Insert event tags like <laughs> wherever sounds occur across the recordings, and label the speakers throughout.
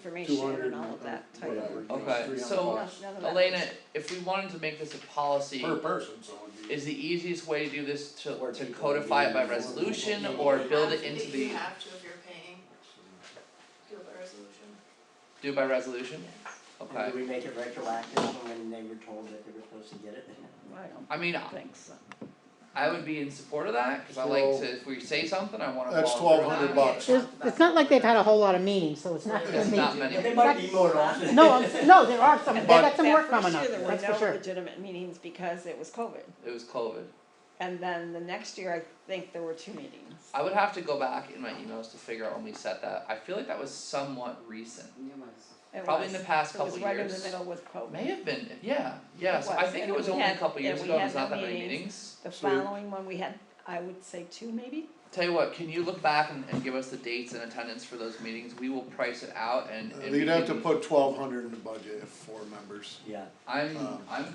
Speaker 1: information
Speaker 2: 200
Speaker 1: and all
Speaker 3: uh,
Speaker 1: of that type of.
Speaker 2: whatever,
Speaker 4: Okay,
Speaker 2: 300
Speaker 4: so-
Speaker 2: bucks
Speaker 1: No, none of that
Speaker 4: Elena,
Speaker 1: is-
Speaker 4: if we wanted to make this a policy,
Speaker 2: Per person, so it'd be.
Speaker 4: is the easiest way to do this to
Speaker 2: Or
Speaker 4: to
Speaker 2: people
Speaker 4: codify it by
Speaker 2: being-
Speaker 4: resolution or build it into
Speaker 5: If
Speaker 4: the,
Speaker 5: you have to, if you're paying, do it by resolution,
Speaker 4: do it by resolution?
Speaker 5: yes.
Speaker 4: Okay,
Speaker 6: Did we make it retroactive from when they were told that they were supposed to get it?
Speaker 1: I don't
Speaker 4: I mean,
Speaker 1: think so.
Speaker 4: I would be in support of that, cause I like
Speaker 2: So-
Speaker 4: to, if we say something, I wanna
Speaker 2: That's
Speaker 4: follow through on
Speaker 2: 1,200
Speaker 4: it.
Speaker 2: bucks.
Speaker 7: There's, it's not like they've had a whole lot of meetings, so it's not gonna
Speaker 4: It's
Speaker 7: be.
Speaker 4: not many.
Speaker 6: But they might be more often.
Speaker 7: No,
Speaker 6: <laughs>
Speaker 7: I'm- no, there are some, they
Speaker 1: And
Speaker 7: got
Speaker 1: that-
Speaker 7: some
Speaker 1: that first
Speaker 7: work coming up,
Speaker 1: year, there were
Speaker 7: that's for
Speaker 1: no
Speaker 7: sure.
Speaker 1: Legitimate meetings because it was COVID,
Speaker 4: It was COVID.
Speaker 1: and then the next year, I think there were two meetings.
Speaker 4: I would have to go back in my emails to figure out when we set that. I feel like that was somewhat recent.
Speaker 1: It
Speaker 4: Probably in
Speaker 1: was.
Speaker 4: the past
Speaker 1: It
Speaker 4: couple
Speaker 1: was right in
Speaker 4: years.
Speaker 1: the middle with COVID.
Speaker 4: May have been, yeah, yeah,
Speaker 1: It
Speaker 4: so I
Speaker 1: was,
Speaker 4: think
Speaker 1: and
Speaker 4: it was
Speaker 1: we
Speaker 4: only
Speaker 1: had-
Speaker 4: a couple years
Speaker 1: and we
Speaker 4: ago,
Speaker 1: had
Speaker 4: there's not
Speaker 1: the
Speaker 4: that many
Speaker 1: meetings.
Speaker 4: meetings.
Speaker 1: The
Speaker 2: So-
Speaker 1: following one, we had, I would say two maybe,
Speaker 4: Tell you what, can you look back and and give us the dates and attendance for those meetings? We will price it out and and we
Speaker 2: You'd have to
Speaker 4: can-
Speaker 2: put twelve hundred in the budget if four members.
Speaker 6: Yeah,
Speaker 4: I'm,
Speaker 2: um,
Speaker 4: I'm, I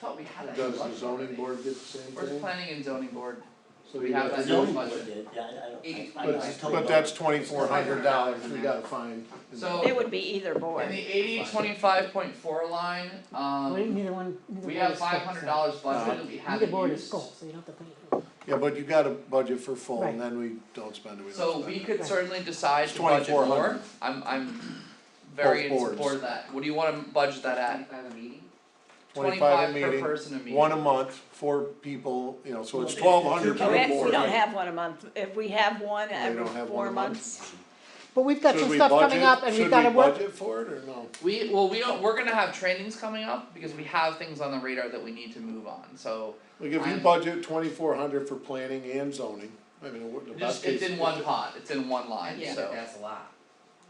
Speaker 4: thought we had that. in
Speaker 2: Does the
Speaker 4: budget
Speaker 2: zoning
Speaker 4: already.
Speaker 2: board get the same
Speaker 4: Where's
Speaker 2: thing?
Speaker 4: planning and zoning board?
Speaker 2: So
Speaker 4: we
Speaker 2: you
Speaker 4: have
Speaker 2: got
Speaker 4: that
Speaker 2: the zoning-
Speaker 4: in
Speaker 6: I
Speaker 4: budget.
Speaker 6: did, yeah, I- I don't, I, I was
Speaker 2: But,
Speaker 6: told.
Speaker 2: but
Speaker 6: about
Speaker 2: that's
Speaker 6: it.
Speaker 2: twenty-four hundred dollars we gotta find. in
Speaker 4: So-
Speaker 1: it would be either
Speaker 7: Oh,
Speaker 4: In
Speaker 1: board,
Speaker 4: the eighty twenty-five point four line,
Speaker 7: Well,
Speaker 4: um,
Speaker 7: neither one, neither
Speaker 4: we
Speaker 7: board
Speaker 4: have
Speaker 7: is full,
Speaker 4: five hundred
Speaker 7: so-
Speaker 4: dollars budgeted, we
Speaker 7: Neither
Speaker 4: haven't
Speaker 7: board is
Speaker 4: used.
Speaker 7: full, so you don't have to pay.
Speaker 2: Yeah, but you got a budget for full and
Speaker 7: Right.
Speaker 2: then we don't spend it, we don't
Speaker 4: So
Speaker 2: spend it.
Speaker 4: we could certainly decide
Speaker 2: It's
Speaker 4: to budget more,
Speaker 2: 2400.
Speaker 4: I'm, I'm very
Speaker 2: Both
Speaker 4: in
Speaker 2: boards.
Speaker 4: support of that, what do you wanna budget that at?
Speaker 3: Twenty-five a meeting?
Speaker 2: Twenty-five a
Speaker 4: per
Speaker 2: meeting,
Speaker 4: person a meeting.
Speaker 2: one a month, four people, you know, so it's
Speaker 6: Two
Speaker 2: twelve hundred
Speaker 6: people.
Speaker 2: per
Speaker 1: we, Oh, we
Speaker 2: board.
Speaker 1: don't have one a month, if we have one
Speaker 2: They
Speaker 1: every
Speaker 2: don't have one
Speaker 1: four
Speaker 2: a month.
Speaker 1: months,
Speaker 7: But we've got
Speaker 2: Should
Speaker 7: some
Speaker 2: we
Speaker 7: stuff coming
Speaker 2: budget-
Speaker 7: up and we've gotta work,
Speaker 2: Should we budget for it or no?
Speaker 4: We, well, we don't, we're gonna have trainings coming up because we have things on the radar that we need to move on, so
Speaker 2: Like if you
Speaker 4: I'm-
Speaker 2: budget twenty-four hundred for planning and zoning, I mean, what- the
Speaker 4: it
Speaker 2: best
Speaker 4: just,
Speaker 2: case.
Speaker 4: it's in one pot, it's in one
Speaker 3: I
Speaker 4: line,
Speaker 3: think that
Speaker 4: so.
Speaker 3: that's a lot.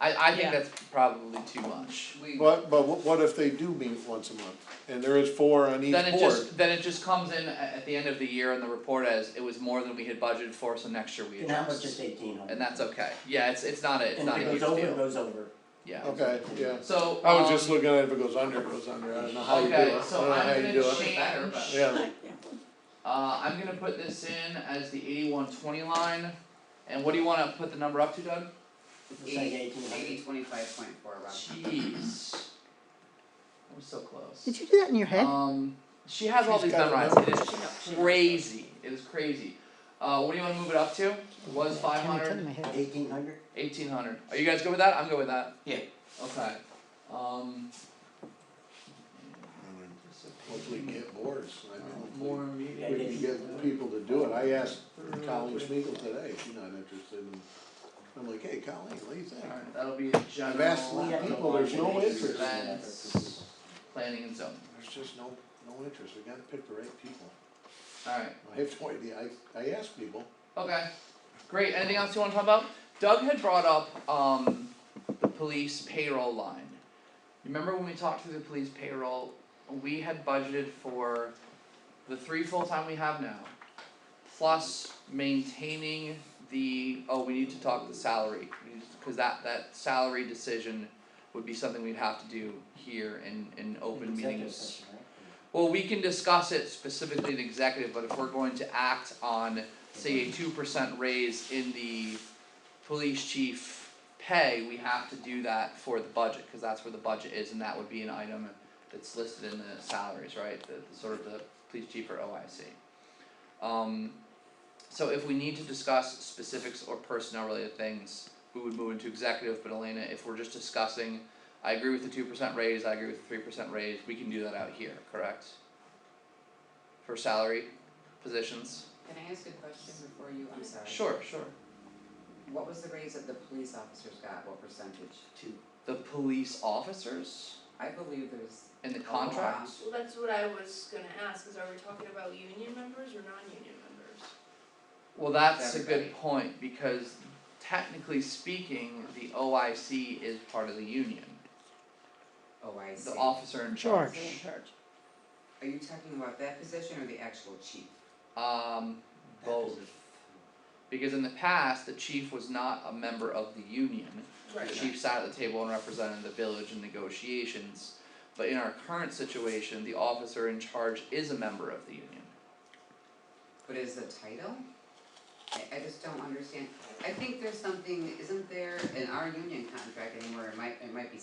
Speaker 4: I, I
Speaker 1: Yeah.
Speaker 4: think that's probably too much.
Speaker 3: We,
Speaker 2: But, but what- what if they do meet once a month and there is four on each
Speaker 4: Then it
Speaker 2: board?
Speaker 4: just, then it just comes in a- at, the end of the year in the report as it was more than we had budgeted for, so next year we
Speaker 6: And that was just
Speaker 4: adjust.
Speaker 6: eighteen hundred.
Speaker 4: And that's okay, yeah, it's, it's not a, it's
Speaker 6: And
Speaker 4: not
Speaker 6: if
Speaker 4: a
Speaker 6: it
Speaker 4: huge
Speaker 6: goes over, it
Speaker 4: deal,
Speaker 6: goes over. Oh.
Speaker 4: yeah.
Speaker 2: Okay, yeah.
Speaker 4: So,
Speaker 2: I was just
Speaker 4: um,
Speaker 2: looking at if it goes under, it goes under, I don't know how you do it, I don't
Speaker 4: okay, so
Speaker 2: know how
Speaker 4: I'm
Speaker 2: you
Speaker 4: gonna
Speaker 2: do it.
Speaker 4: change.
Speaker 3: Better, but-
Speaker 2: Yeah,
Speaker 4: Uh, I'm gonna put this in as the eighty-one twenty line, and what do you wanna put the number up to, Doug?
Speaker 6: It's like
Speaker 3: eighty,
Speaker 6: 1800.
Speaker 3: eighty, twenty-five point four, Rob.
Speaker 4: Jeez. We're so close.
Speaker 7: did you do that in your head?
Speaker 4: Um, she has all
Speaker 2: She's
Speaker 4: these
Speaker 2: got it
Speaker 4: memorized, it
Speaker 2: memorized.
Speaker 4: is crazy, it is crazy. Uh, what do you wanna move it up to? It was
Speaker 7: Can't
Speaker 4: five
Speaker 7: even tell in
Speaker 4: hundred,
Speaker 7: my head.
Speaker 6: Eighteen hundred?
Speaker 4: eighteen hundred, are you guys good with that? I'm good with that.
Speaker 3: Yeah.
Speaker 4: Okay, um.
Speaker 2: hopefully you get boards, I mean,
Speaker 4: uh, More meetings.
Speaker 2: we can get people to do it, I asked
Speaker 4: Mm-hmm.
Speaker 2: Colleen Schmeigel today, she's not interested in, I'm like, hey Colleen, what do you think?
Speaker 4: Alright, that'll be a general.
Speaker 2: I've asked a lot
Speaker 6: Yeah.
Speaker 2: of people, there's no interest,
Speaker 4: Events, planning and zoning,
Speaker 2: there's just no, no interest, we gotta pick the right people.
Speaker 4: alright.
Speaker 2: I have no idea, I, I ask people,
Speaker 4: Okay, great, anything else you wanna talk about? Doug had brought up, um, the police payroll line. Remember when we talked through the police payroll, we had budgeted for the three full-time we have now. Plus maintaining the, oh, we need to talk the salary, we need to- cause that, that salary decision would be something we'd have to do here in, in open meetings.
Speaker 6: Executive session, right?
Speaker 4: Well, we can discuss it specifically in executive, but if we're going to act on, say, a two percent raise in the police chief pay, we have to do that for the budget, cause that's where the budget is, and that would be an item that's listed in the salaries, right, the, the sort of the police chief or OIC. Um, so if we need to discuss specifics or personnel related things, we would move into executive, but Elena, if we're just discussing I agree with the two percent raise, I agree with the three percent raise, we can do that out here, correct? For salary positions?
Speaker 3: Can I ask a question before you, I'm sorry?
Speaker 4: Sure, sure.
Speaker 3: What was the raise that the police officers got, what percentage?
Speaker 6: Two.
Speaker 4: The police officers
Speaker 3: I believe there's
Speaker 4: and the
Speaker 3: a lot.
Speaker 4: contract?
Speaker 8: Well, that's what I was gonna ask, is are we talking about union members or non-union members?
Speaker 4: Well, that's a
Speaker 3: Everybody.
Speaker 4: good point, because technically speaking, the OIC is part of the union,
Speaker 3: Oh, I see.
Speaker 4: the officer in charge.
Speaker 7: Charge.
Speaker 1: they're in charge.
Speaker 3: Are you talking about that position or the actual chief?
Speaker 4: Um, both, because in the past, the chief was not a member of the union, the chief sat at the table and represented the village in negotiations. But in our current situation, the officer in charge is a member of the union.
Speaker 3: But is the title? I, I just don't understand. I think there's something, isn't there in our union contract anywhere, it might, it might be